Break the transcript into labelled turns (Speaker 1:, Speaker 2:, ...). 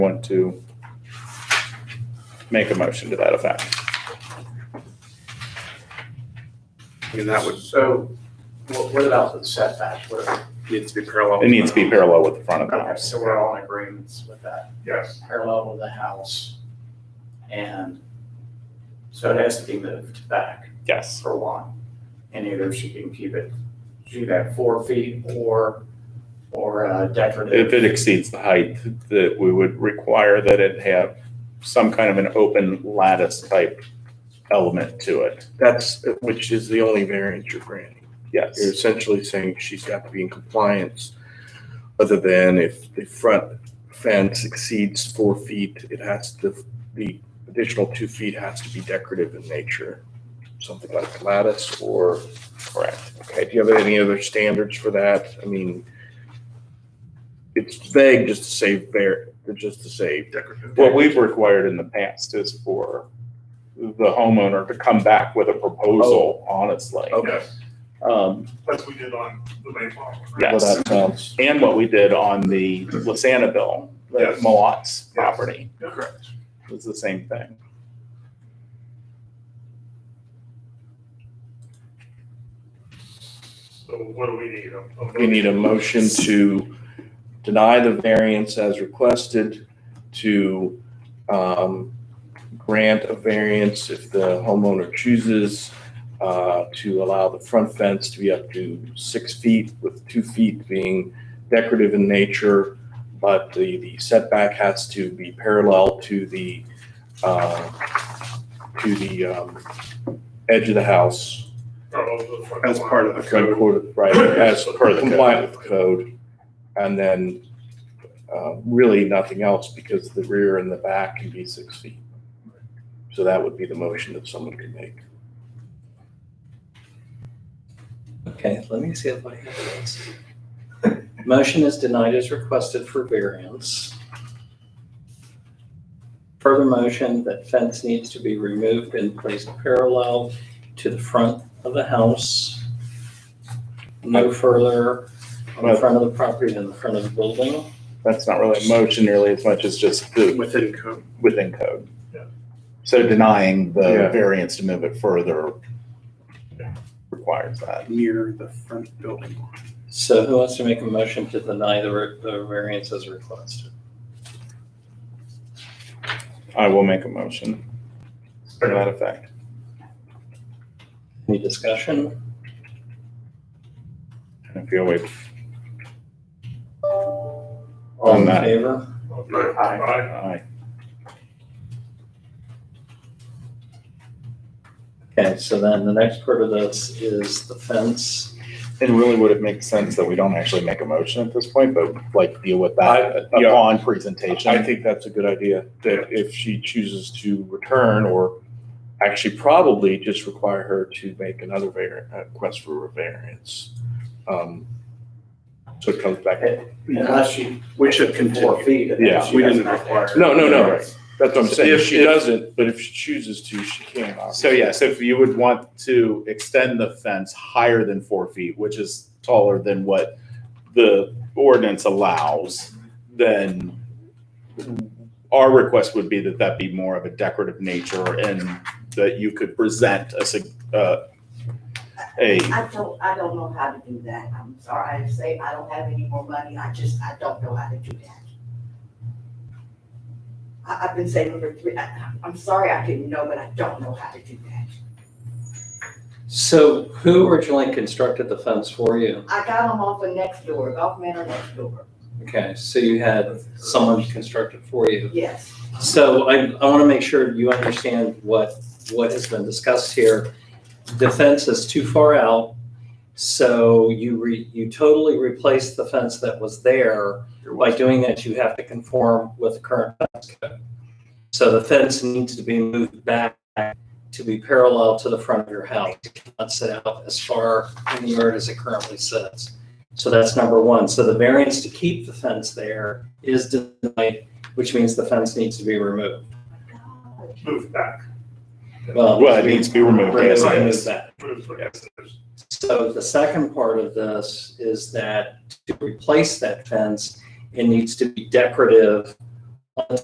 Speaker 1: want to make a motion to that effect.
Speaker 2: I mean, that would
Speaker 3: So what, what about the setback? What,
Speaker 2: need to be parallel.
Speaker 1: It needs to be parallel with the front of the
Speaker 3: okay,
Speaker 1: house.
Speaker 3: so we're all in agreements with that,
Speaker 4: Yes,
Speaker 3: parallel with the house. And so it has to be moved back
Speaker 1: Yes,
Speaker 3: for one. And either she can keep it, she can have four feet or, or uh,
Speaker 1: if
Speaker 3: decorative.
Speaker 1: it exceeds the height, that we would require that it have some kind of an open lattice type element to it.
Speaker 5: That's, which is the only variance you're granting. You're
Speaker 1: Yes,
Speaker 5: essentially saying she's got to be in compliance, other than if the front fence exceeds four feet, it has to, the additional two feet has to be decorative in nature. Something like lattice or,
Speaker 1: correct.
Speaker 5: okay, do you have any other standards for that? I mean, it's vague just to say var, just to say
Speaker 2: Decorative.
Speaker 1: What we've required in the past is for the homeowner to come back with a proposal,
Speaker 4: Oh.
Speaker 1: honestly.
Speaker 5: Okay.
Speaker 4: yes,
Speaker 1: Um,
Speaker 4: as we did on the Mayflower. right?
Speaker 1: Yes.
Speaker 5: Well, that, um,
Speaker 1: And what we did on the Lasana bill, the
Speaker 4: Yes.
Speaker 1: Moat's property,
Speaker 4: Yeah, Correct.
Speaker 1: was the same thing.
Speaker 4: So what do we need? A- a
Speaker 5: We need a motion to deny the variance as requested, to um, grant a variance if the homeowner chooses uh, to allow the front fence to be up to six feet, with two feet being decorative in nature, but the the setback has to be parallel to the, uh, to the um, edge of the house.
Speaker 4: Parallel to Oh, the front
Speaker 2: As
Speaker 4: line.
Speaker 2: part of the code.
Speaker 5: Code, code, right, as per the compliant with code. And then, uh, really nothing else because the rear and the back can be six feet. So that would be the motion that someone could make.
Speaker 6: Okay, let me see if I have this. Motion is denied as requested for variance. Further motion that fence needs to be removed and placed parallel to the front of the house. No further on the front of the property than the front of the building.
Speaker 1: That's not really a motion nearly as much as just the,
Speaker 2: Within code.
Speaker 1: within code.
Speaker 4: Yeah.
Speaker 1: So denying the
Speaker 5: Yeah.
Speaker 1: variance to move it further requires that.
Speaker 2: Near the front building line.
Speaker 6: So who wants to make a motion to deny the re- the variance as requested?
Speaker 1: I will make a motion to that effect.
Speaker 6: Any discussion?
Speaker 1: And I feel we've,
Speaker 6: All in
Speaker 1: Aye.
Speaker 6: favor?
Speaker 4: Okay.
Speaker 3: Aye.
Speaker 4: Aye.
Speaker 1: I,
Speaker 6: Okay, so then the next part of this is the fence.
Speaker 1: it really would it make sense that we don't actually make a motion at this point, but like deal with that
Speaker 5: I- yeah.
Speaker 1: upon presentation?
Speaker 5: uh, I think that's a good idea, that if she chooses to return or actually probably just require her to make another var, uh, request for a variance. Um, So it comes back.
Speaker 3: Unless she.
Speaker 2: We should
Speaker 3: Four
Speaker 2: continue.
Speaker 3: feet. and then
Speaker 5: Yeah,
Speaker 3: she
Speaker 2: we
Speaker 3: does
Speaker 2: didn't
Speaker 3: not
Speaker 2: require-
Speaker 3: decorate.
Speaker 5: No, no, no.
Speaker 1: Right.
Speaker 5: That's what I'm saying. If
Speaker 1: If-
Speaker 5: she
Speaker 1: if-
Speaker 5: doesn't, but if she chooses to, she can.
Speaker 1: So
Speaker 5: obviously.
Speaker 1: yes, if you would want to extend the fence higher than four feet, which is taller than what the ordinance allows, then our request would be that that be more of a decorative nature and that you could present a, sig- uh, a,
Speaker 7: I don't, I don't know how to do that. I'm sorry, I say I don't have any more money. I just, I don't know how to do that. I, I've been saving for three, I, I'm sorry I didn't know, but I don't know how to do that.
Speaker 6: So who originally constructed the fence for you?
Speaker 7: I got them off of next door, Golf Manor next door.
Speaker 6: Okay, so you had someone construct it for you.
Speaker 7: Yes,
Speaker 6: So I, I want to make sure you understand what, what has been discussed here. The fence is too far out, so you re, you totally replaced the fence that was there. By doing that, you have to conform with the current fence code. So the fence needs to be moved back to be parallel to the front of your house. It cannot sit out as far in the yard as it currently sits. So that's number one. So the variance to keep the fence there is denied which means the fence needs to be removed.
Speaker 4: Move back.
Speaker 1: well, it needs to be removed as it
Speaker 6: Remove
Speaker 1: is.
Speaker 6: that.
Speaker 4: Move back. Yes, it is.
Speaker 6: So the second part of this is that to replace that fence, it needs to be decorative on